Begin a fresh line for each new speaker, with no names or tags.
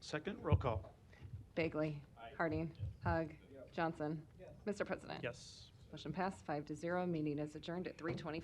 Second, roll call.
Bagley. Harding. Hug. Johnson. Mr. President.
Yes.
Motion passed, five to zero. Meeting is adjourned at 3:24.